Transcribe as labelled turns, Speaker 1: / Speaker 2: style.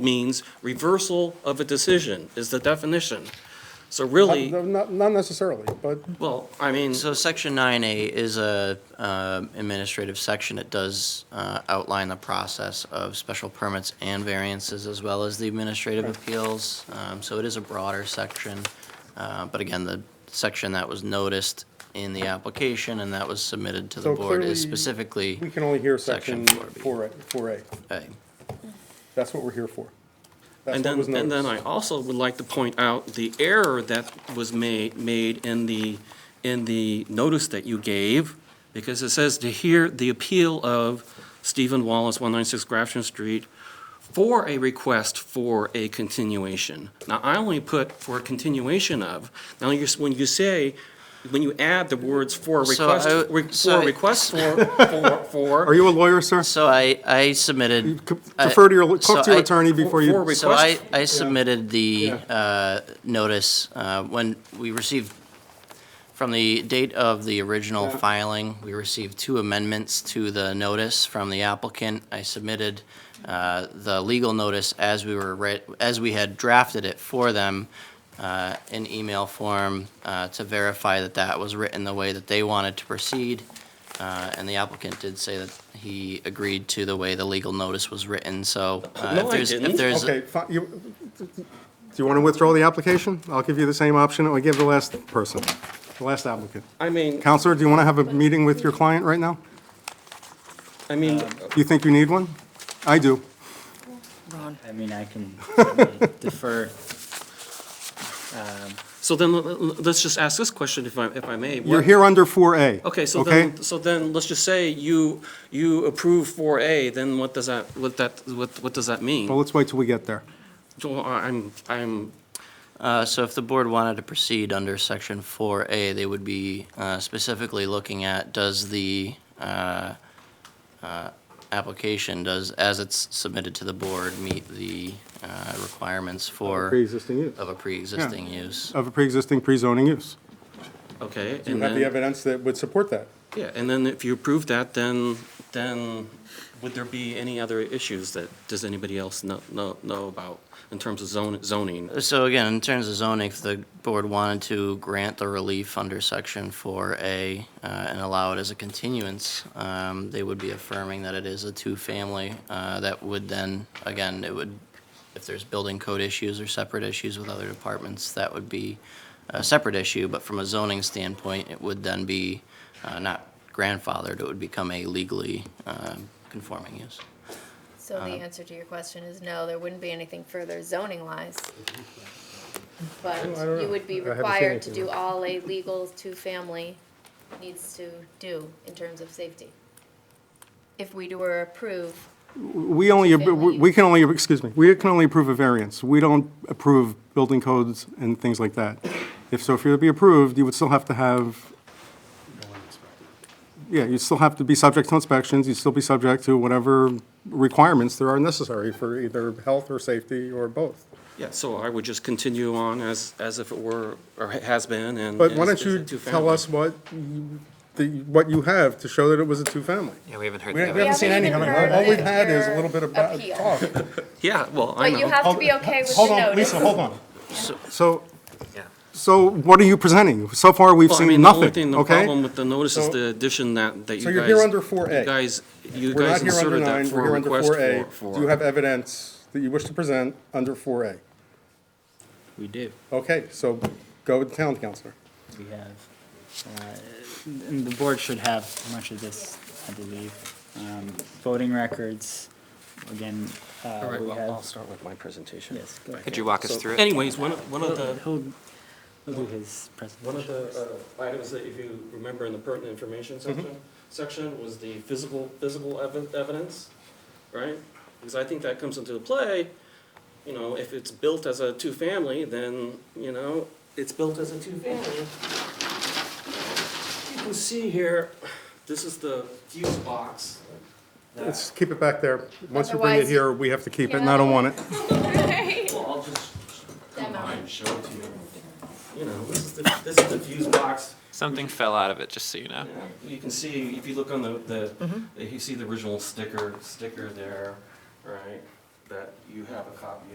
Speaker 1: means reversal of a decision is the definition. So really,
Speaker 2: Not- Not not necessarily, but
Speaker 1: well, I mean,
Speaker 3: So section nine A is a uh, administrative section. It does uh, outline the process of special permits and variances as well as the administrative appeals. Um, So it is a broader section. Uh, But again, the section that was noticed in the application and that was submitted to
Speaker 2: So
Speaker 3: the board is
Speaker 2: clearly,
Speaker 3: specifically.
Speaker 2: we can only hear section
Speaker 3: Section 4B.
Speaker 2: 4A. 4A.
Speaker 3: A.
Speaker 2: That's what we're here for. That's
Speaker 1: and
Speaker 2: what
Speaker 1: then,
Speaker 2: was
Speaker 1: and then I
Speaker 2: noticed.
Speaker 1: also would like to point out the error that was made, made in the, in the notice that you gave, because it says to hear the appeal of Stephen Wallace, 196 Grafton Street, for a request for a continuation. Now, I only put for a continuation of. Now, you're, when you say, when you add the words for a
Speaker 3: So
Speaker 1: request,
Speaker 3: I-
Speaker 1: re-
Speaker 3: so
Speaker 1: for a
Speaker 3: I-
Speaker 1: request for, for, for.
Speaker 4: Are you a lawyer, sir?
Speaker 3: So I, I submitted.
Speaker 4: Co-
Speaker 1: Uh,
Speaker 3: I-
Speaker 4: Defer to your,
Speaker 3: so
Speaker 4: talk to your
Speaker 3: I-
Speaker 4: attorney before you.
Speaker 1: For- for
Speaker 3: So I,
Speaker 1: request-
Speaker 3: I submitted the
Speaker 4: Yeah.
Speaker 3: uh, notice uh, when we received, from the date of the original filing, we received two amendments to the notice from the applicant. I submitted uh, the legal notice as we were, writ- as we had drafted it for them uh, in email form uh, to verify that that was written the way that they wanted to proceed. Uh, And the applicant did say that he agreed to the way the legal notice was written, so. uh,
Speaker 1: No,
Speaker 3: if
Speaker 1: I
Speaker 3: there's-
Speaker 1: didn't.
Speaker 3: If there's,
Speaker 2: Okay, fi- you-
Speaker 4: Do you want to withdraw the application? I'll give you the same option that we gave the last person, the last applicant.
Speaker 1: I mean,
Speaker 4: Counselor, do you want to have a meeting with your client right now?
Speaker 1: I mean,
Speaker 4: Do you think you need one? I do.
Speaker 5: I mean, I can certainly defer. Um,
Speaker 1: So then, l- l- let's just ask this question, if I, if I may.
Speaker 4: You're
Speaker 1: What-
Speaker 4: here under 4A.
Speaker 1: Okay, so
Speaker 4: okay?
Speaker 1: then, so then, let's just say you, you approve 4A, then what does that, what that, what, what does that mean?
Speaker 4: Well, let's wait till we get there.
Speaker 1: So uh, I'm, I'm,
Speaker 3: Uh, So if the board wanted to proceed under section 4A, they would be uh, specifically looking at, does the uh, uh, application, does, as it's submitted to the board, meet the uh, requirements for,
Speaker 4: Pre-existing use.
Speaker 3: of a pre-existing use?
Speaker 4: Of a pre-existing pre-zoning use.
Speaker 1: okay,
Speaker 2: You
Speaker 1: and
Speaker 2: have the
Speaker 1: then,
Speaker 2: evidence that would support that.
Speaker 1: yeah, and then if you approve that, then, then would there be any other issues that, does anybody else know, know, know about in terms of zone, zoning?
Speaker 3: So again, in terms of zoning, if the board wanted to grant the relief under section 4A uh, and allow it as a continuance, um, they would be affirming that it is a two-family. uh, That would then, again, it would, if there's building code issues or separate issues with other departments, that would be a separate issue. But from a zoning standpoint, it would then be uh, not grandfathered, it would become a legally um, conforming use.
Speaker 6: So
Speaker 1: Uh-huh.
Speaker 6: the answer to your question is no, there wouldn't be anything further zoning wise. But you would be
Speaker 4: haven't seen
Speaker 6: required to
Speaker 4: anything.
Speaker 6: do all a legal two-family needs to do in terms of safety. If we were approve,
Speaker 4: We only,
Speaker 6: Family
Speaker 4: we can only, excuse me, we can only approve a variance. We don't approve building codes and things like that. If, so if you're to be approved, you would still have to have, yeah, you'd still have to be subject to inspections, you'd still be subject to whatever requirements there are necessary for either health or safety or both.
Speaker 1: Yeah, so I would just continue on as, as if it were, or has been, and.
Speaker 4: But why
Speaker 1: is-
Speaker 4: don't
Speaker 1: is
Speaker 4: you
Speaker 1: a
Speaker 4: tell
Speaker 1: two-family.
Speaker 4: us what, you- the, what you have to show that it was a two-family?
Speaker 3: Yeah, we haven't heard
Speaker 2: We haven't we
Speaker 6: Yeah,
Speaker 2: haven't seen any,
Speaker 6: even
Speaker 2: of it.
Speaker 6: heard
Speaker 2: all
Speaker 6: of
Speaker 2: we've
Speaker 6: it.
Speaker 2: had is a
Speaker 6: Your
Speaker 2: little bit of ba-
Speaker 6: appeal.
Speaker 2: talk.
Speaker 1: Yeah, well, I
Speaker 6: but
Speaker 1: know.
Speaker 6: you have to be okay with the
Speaker 2: Hold on,
Speaker 6: notice.
Speaker 2: Lisa, hold on.
Speaker 4: So, so what are you presenting? So far, we've
Speaker 1: Well, I
Speaker 4: seen
Speaker 1: mean, the only thing,
Speaker 4: nothing,
Speaker 1: the problem
Speaker 4: okay?
Speaker 1: with the notice is
Speaker 2: So-
Speaker 1: the addition that, that you guys.
Speaker 2: So you're here under 4A.
Speaker 1: You guys, you
Speaker 2: We're not
Speaker 1: guys
Speaker 2: here under
Speaker 1: inserted that
Speaker 2: nine, we're
Speaker 1: for a
Speaker 2: here under
Speaker 1: request
Speaker 2: 4A.
Speaker 1: for. for-
Speaker 2: Do you have evidence that you wish to present under 4A?
Speaker 5: We do,
Speaker 2: Okay, so go with the town councilor.
Speaker 5: we have, uh, and the board should have much of this, I believe. Um, Voting records, again,
Speaker 1: All
Speaker 5: uh,
Speaker 1: right,
Speaker 5: we
Speaker 1: well, I'll
Speaker 5: have.
Speaker 1: start with my presentation.
Speaker 5: Yes, go ahead.
Speaker 7: Could you walk us through it?
Speaker 1: Anyways, one, of- one of the,
Speaker 5: He'll, he'll do his
Speaker 1: one of
Speaker 5: presentation.
Speaker 1: the uh, items that if you remember in the pertinent information section, section was the physical, physical evi- evidence, right? Because I think that comes into play, you know, if it's built as a two-family, then, you know, it's built as a two-family. You can see here, this is the fuse box. that-
Speaker 4: Let's keep it back there. Once you bring it
Speaker 6: Otherwise-
Speaker 4: here, we have to keep it, and I don't want it.
Speaker 1: Well, I'll just
Speaker 6: Demo.
Speaker 1: and show it to you. You know, this is the, this is the fuse box.
Speaker 7: Something fell out of it, just so you know.
Speaker 1: You can see, if you look on the, the, you see the original sticker, sticker there, right? that you have a copy